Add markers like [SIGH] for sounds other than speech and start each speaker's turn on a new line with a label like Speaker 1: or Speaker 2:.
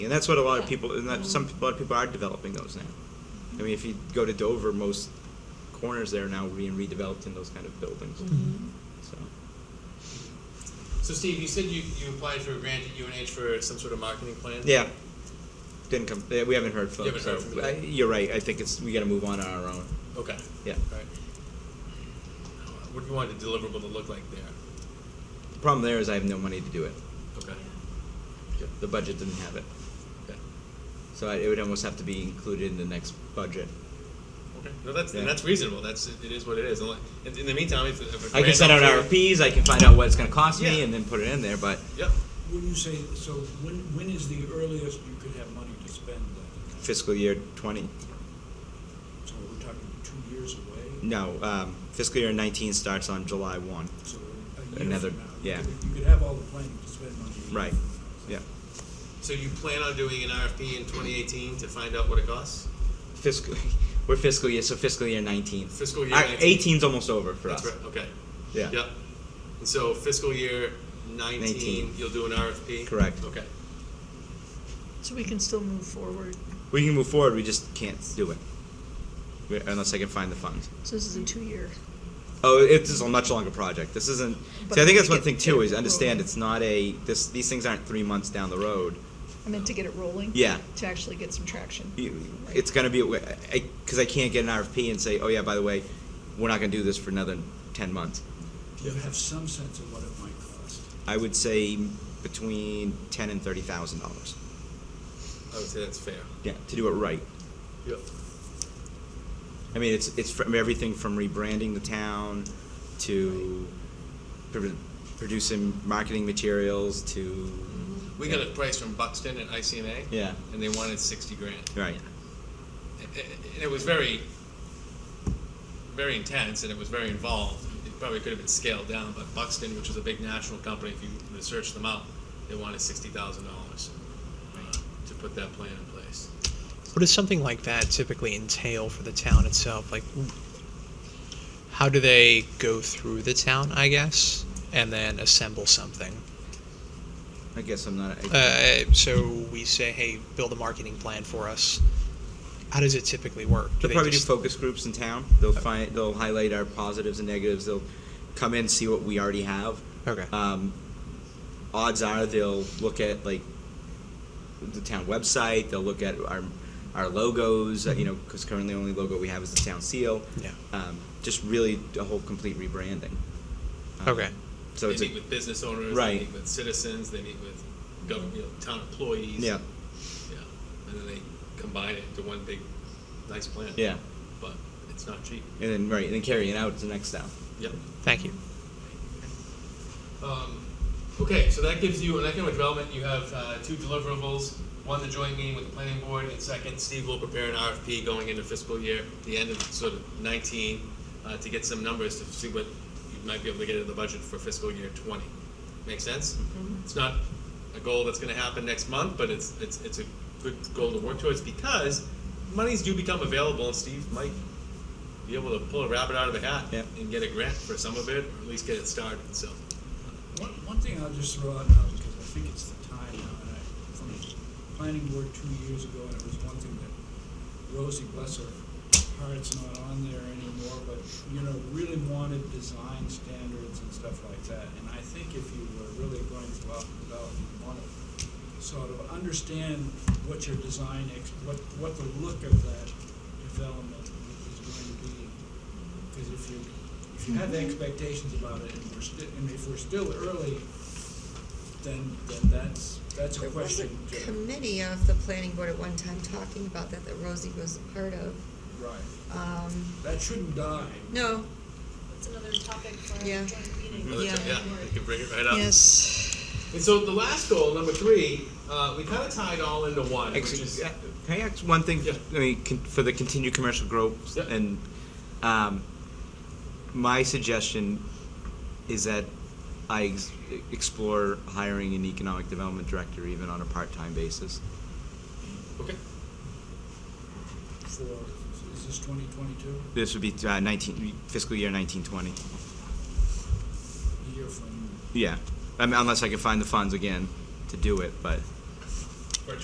Speaker 1: And that's what a lot of people, and that some, a lot of people are developing those now. I mean, if you go to Dover, most corners there are now being redeveloped in those kind of buildings,
Speaker 2: Mm-hmm.
Speaker 1: so.
Speaker 3: So Steve, you said you, you applied for a grant at UNH for some sort of marketing plan?
Speaker 1: Yeah. Didn't come, eh, we haven't heard from,
Speaker 3: You haven't
Speaker 1: so,
Speaker 3: heard from
Speaker 1: I-
Speaker 3: them.
Speaker 1: you're right, I think it's, we gotta move on on our own,
Speaker 3: Okay,
Speaker 1: yeah.
Speaker 3: alright. What do you want the deliverable to look like there?
Speaker 1: The Problem there is I have no money to do it,
Speaker 3: Okay,
Speaker 1: the budget didn't have it,
Speaker 3: okay.
Speaker 1: so I- it would almost have to be included in the next budget.
Speaker 3: Okay, no, that's,
Speaker 1: Yeah.
Speaker 3: and that's reasonable, that's, it is what it is, Unless- in, in the meantime, if. if a
Speaker 1: I can
Speaker 3: grant
Speaker 1: send out
Speaker 3: offer-
Speaker 1: RFPs, I can find out what it's gonna cost me
Speaker 3: Yeah.
Speaker 1: and then put it in there, but
Speaker 3: Yep,
Speaker 4: When you say, so when, when is the earliest you could have money to spend? uh,
Speaker 1: fiscal year twenty,
Speaker 4: So we're talking two years away?
Speaker 1: no, um, fiscal year nineteen starts on July one,
Speaker 4: So a year
Speaker 1: Another-
Speaker 4: from now? you
Speaker 1: yeah.
Speaker 4: could- You could have all the planning to spend money. a year
Speaker 1: Right.
Speaker 4: from now.
Speaker 1: yeah.
Speaker 3: so you plan on doing an RFP in twenty eighteen to find out what it costs?
Speaker 1: Fiscal, [LAUGHS] we're fiscal year, so fiscal year nineteen.
Speaker 3: Fiscal year
Speaker 1: Our-
Speaker 3: 19.
Speaker 1: 18's almost over for
Speaker 3: That's
Speaker 1: us,
Speaker 3: right, okay.
Speaker 1: yeah.
Speaker 3: Yep, and so fiscal year nineteen,
Speaker 1: 19.
Speaker 3: you'll do an RFP?
Speaker 1: Correct.
Speaker 3: Okay,
Speaker 2: So we can still move forward.
Speaker 1: We can move forward, we just can't do it, We- unless I can find the funds.
Speaker 2: So this is a two-year.
Speaker 1: Oh, it's just a much longer project. This isn't.
Speaker 2: But
Speaker 1: see, I think that's
Speaker 2: we
Speaker 1: one
Speaker 2: get-
Speaker 1: thing too.
Speaker 2: get
Speaker 1: Is
Speaker 2: it
Speaker 1: understand
Speaker 2: rolling.
Speaker 1: it's not a. This these things aren't three months down the road.
Speaker 2: I meant to get it rolling.
Speaker 1: Yeah.
Speaker 2: To actually get some traction.
Speaker 1: You- It's going to be because I, can't get an RFP and say, oh yeah, by the way, we're not going to do this for another ten months.
Speaker 4: Do you have some sense of what it might cost?
Speaker 1: I would say between ten and thirty thousand dollars.
Speaker 3: I would say that's fair.
Speaker 1: Yeah, to do it right.
Speaker 3: Yep.
Speaker 1: I mean, it's it's from everything from rebranding the town to pr- producing marketing materials to
Speaker 3: We got a price from Buxton at ICMA.
Speaker 1: Yeah.
Speaker 3: And they wanted sixty grand.
Speaker 1: right.
Speaker 3: And- And it was very, very intense and it was very involved. It probably could have been scaled down, but Buxton, which was a big national company, if you research them out, they wanted sixty thousand dollars uh, to put that plan in place.
Speaker 5: What does something like that typically entail for the town itself? Like, how do they go through the town, I guess, and then assemble something?
Speaker 1: I guess I'm not. I,
Speaker 5: Uh, so we say, hey, build a marketing plan for us. How does it typically work? Do
Speaker 1: They'll
Speaker 5: they
Speaker 1: probably do
Speaker 5: just-
Speaker 1: focus groups in town. They'll find, they'll highlight our positives and negatives. They'll come in, see what we already have.
Speaker 5: Okay.
Speaker 1: Um, odds are they'll look at like the town website. They'll look at our our logos. uh, You know, because currently the only logo we have is the town seal.
Speaker 5: Mm-hmm. Yeah.
Speaker 1: Um, just really a whole complete rebranding. Um,
Speaker 5: Okay.
Speaker 1: So
Speaker 3: They
Speaker 1: it's a,
Speaker 3: meet with business owners, they
Speaker 1: Right.
Speaker 3: meet with citizens, they meet with government, you know, town employees.
Speaker 1: yeah,
Speaker 3: Yeah, and then they combine it into one big, nice plan.
Speaker 1: yeah,
Speaker 3: But it's not cheap.
Speaker 1: and then right, and then carrying out is the next step.
Speaker 3: Yep.
Speaker 5: Thank you.
Speaker 3: Um, okay, so that gives you, in economic development, you have uh, two deliverables. One, the joint meeting with the planning board, and second, Steve will prepare an RFP going into fiscal year, the end of sort of nineteen, uh, to get some numbers to see what you might be able to get in the budget for fiscal year twenty. Make sense? It's not a goal that's gonna happen next month, but it's, it's, it's a good goal to work towards because monies do become available, and Steve might be able to pull a rabbit out of the hat
Speaker 1: Yeah.
Speaker 3: and get a grant for some of it, or at least get it started, so.
Speaker 4: One, one thing I'll just throw out now, because I think it's the time now, and I, from the planning board two years ago, and it was one thing that Rosie, bless her, heart's not on there anymore, but, you know, really wanted design standards and stuff like that. And I think if you were really going to go out and develop, you want to sort of understand what your design, ex- what, what the look of that development is going to be. Because if you, if you have expectations about it, and we're still, and if we're still early, then, then that's, that's a
Speaker 6: There was a
Speaker 4: question. to-
Speaker 6: committee off the planning board at one time talking about that, that Rosie was a part of.
Speaker 4: Right,
Speaker 6: Um,
Speaker 4: that shouldn't die.
Speaker 6: no,
Speaker 7: It's another topic for a
Speaker 6: Yeah.
Speaker 7: joint meeting.
Speaker 3: Another
Speaker 6: Yeah.
Speaker 3: tip, we can bring it right up.
Speaker 2: Yes.
Speaker 3: And so the last goal, number three, uh, we kind of tie it all into one, which
Speaker 1: Actually,
Speaker 3: is
Speaker 1: uh, Can I ask one thing,
Speaker 3: Yeah.
Speaker 1: I mean, con- for the continued commercial growth
Speaker 3: Yeah.
Speaker 1: and, um, my suggestion is that I ex- explore hiring an economic development director even on a part-time basis.
Speaker 3: okay.
Speaker 4: For, is this twenty twenty-two,
Speaker 1: This would be uh, nineteen, fiscal year nineteen twenty,
Speaker 4: a year from,
Speaker 1: yeah, I mean, unless I can find the funds again to do it, but,